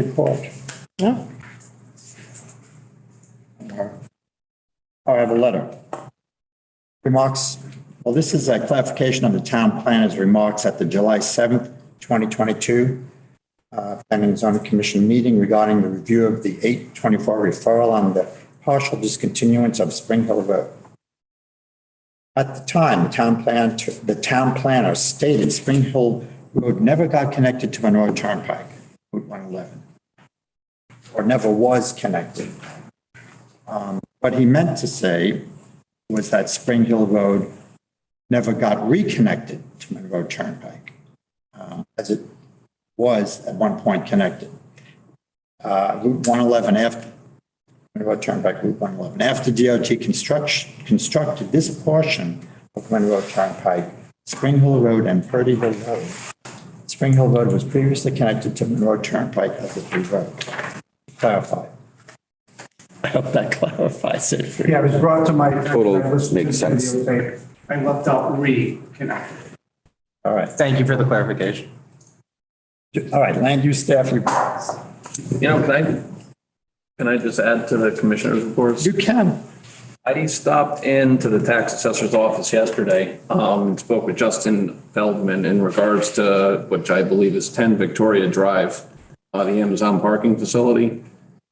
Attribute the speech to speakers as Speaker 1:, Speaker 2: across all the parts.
Speaker 1: report.
Speaker 2: No,
Speaker 1: Oh, I have a letter. Remarks, well, this is a clarification of the town planner's remarks at the July 7th, 2022 uh, Planning and Zoning Commission meeting regarding the review of the 824 referral on the partial discontinuance of Spring Hill Road. At the time, the town plan, the town planner stated Spring Hill Road never got connected to Monroe Turnpike, Route 111, or never was connected. Um, What he meant to say was that Spring Hill Road never got reconnected to Monroe Turnpike, um, as it was at one point connected. Uh, Route 111 after, Monroe Turnpike, Route 111. After DOT construction, constructed this portion of Monroe Turnpike, Spring Hill Road and Purdy Hill Road. Spring Hill Road was previously connected to Monroe Turnpike as a through road. Clarify.
Speaker 2: I hope that clarifies it. for you.
Speaker 3: Yeah, it was brought to my.
Speaker 4: Total
Speaker 3: I listened to
Speaker 4: makes
Speaker 3: the
Speaker 4: sense.
Speaker 3: videotape. I left out reconnected.
Speaker 1: All right.
Speaker 5: Thank you for the clarification.
Speaker 1: All right, land use staff reports.
Speaker 6: You know, can I, can I just add to the commissioner's reports?
Speaker 1: You can.
Speaker 6: I stopped into the tax assessor's office yesterday, um, and spoke with Justin Feldman in regards to, which I believe is ten Victoria Drive, uh, the Amazon parking facility.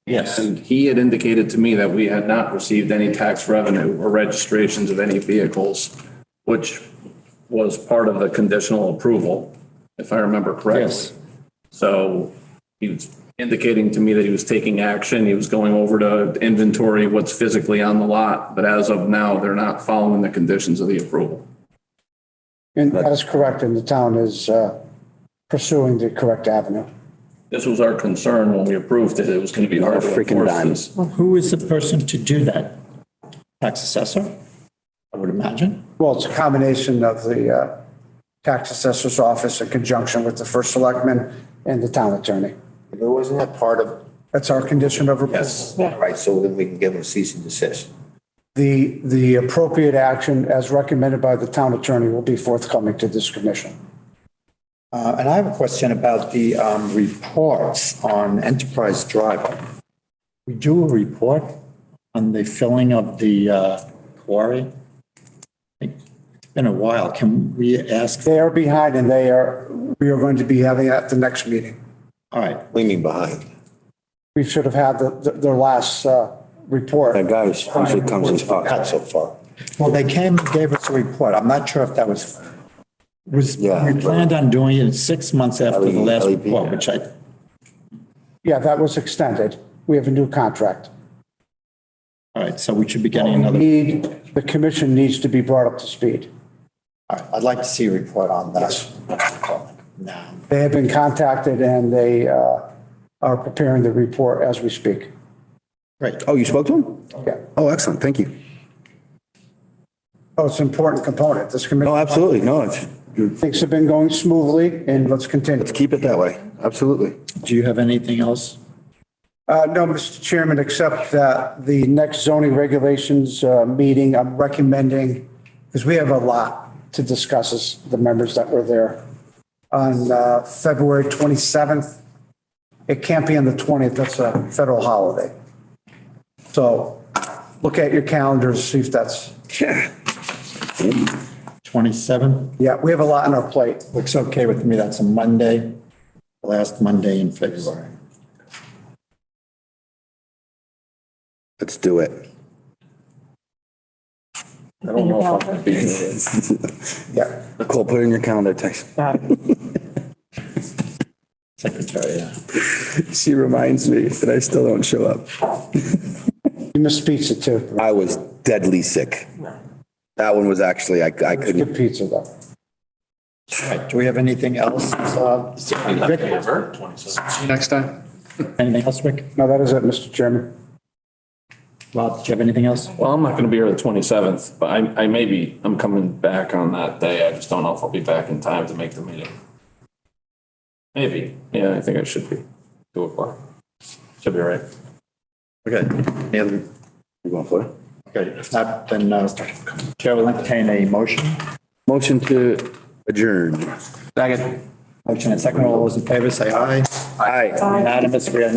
Speaker 6: Yes. And he had indicated to me that we had not received any tax revenue or registrations of any vehicles, which was part of the conditional approval, if I remember correctly.
Speaker 1: Yes.
Speaker 6: So he was indicating to me that he was taking action. He was going over to inventory what's physically on the lot. But as of now, they're not following the conditions of the approval.
Speaker 7: And that is correct, and the town is uh, pursuing the correct avenue.
Speaker 6: This was our concern when we approved it. It was going to be hard to
Speaker 4: Freaking
Speaker 6: enforce
Speaker 4: dime.
Speaker 6: this.
Speaker 1: Who is the person to do that? Tax assessor, I would imagine.
Speaker 7: Well, it's a combination of the uh, tax assessor's office in conjunction with the first selectman and the town attorney.
Speaker 8: But wasn't that part of,
Speaker 7: That's our condition of approval.
Speaker 8: right, so then we can give them cease and desist?
Speaker 7: The, the appropriate action as recommended by the town attorney will be forthcoming to this commission.
Speaker 1: Uh, And I have a question about the um, reports on Enterprise Drive. We do a report on the filling of the uh, quarry. It's been a while. Can we ask?
Speaker 7: They are behind and they are, we are going to be having it at the next meeting.
Speaker 1: All right,
Speaker 8: What do you mean behind?
Speaker 7: We should have had the- the- their last uh, report.
Speaker 4: That guy was- usually comes and
Speaker 8: Not
Speaker 4: talks.
Speaker 8: so far.
Speaker 1: well, they came and gave us a report. I'm not sure if that was, was, we
Speaker 4: Yeah.
Speaker 1: planned on doing it six months after the last
Speaker 4: LEP.
Speaker 1: report, which I
Speaker 7: Yeah, that was extended. We have a new contract.
Speaker 1: All right, so we should be getting
Speaker 7: We
Speaker 1: another,
Speaker 7: need, the commission needs to be brought up to speed.
Speaker 1: all right, I'd like to see a report on that. Now,
Speaker 7: They have been contacted and they uh, are preparing the report as we speak.
Speaker 1: great.
Speaker 4: Oh, you spoke to him?
Speaker 7: Yeah.
Speaker 4: Oh, excellent. Thank you.
Speaker 7: Oh, it's an important component. This
Speaker 4: No,
Speaker 7: committee,
Speaker 4: Oh, absolutely. No, it's, you-
Speaker 7: things have been going smoothly and let's continue.
Speaker 4: let's keep it that way. Absolutely.
Speaker 1: Do you have anything else?
Speaker 7: Uh, No, Mr. Chairman, except that the next zoning regulations uh, meeting, I'm recommending, because we have a lot to discuss as the members that were there, on uh, February 27th. It can't be on the 20th, that's a federal holiday. So look at your calendars, see if that's,
Speaker 1: 27?
Speaker 7: yeah, we have a lot on our plate.
Speaker 1: Looks okay with me, that's a Monday, last Monday in February.
Speaker 4: Let's do it.
Speaker 6: I don't know if I'm going to be here.
Speaker 7: Yeah.
Speaker 4: Cole, put it in your calendar, text.
Speaker 1: Secretary, yeah.
Speaker 4: She reminds me that I still don't show up.
Speaker 7: You missed pizza too.
Speaker 4: I was deadly sick. That one was actually, I, I couldn't.
Speaker 7: Good pizza though.
Speaker 1: All right, do we have anything else? uh, Rick? Anything else, Rick?
Speaker 7: No, that is it, Mr. Chairman.
Speaker 1: Rob, do you have anything else?
Speaker 6: Well, I'm not going to be here the 27th, but I, I may be, I'm coming back on that day. I just don't know if I'll be back in time to make the meeting. Maybe. Yeah, I think I should be. Two o'clock. Should be all right.
Speaker 1: Okay, any other,
Speaker 4: You going for it?
Speaker 1: okay, if not, then uh, Chair will entertain a motion.
Speaker 4: Motion to adjourn.
Speaker 5: Second.
Speaker 1: Motion and second, all those in favor say aye.
Speaker 4: Aye.
Speaker 1: Unanimous, we are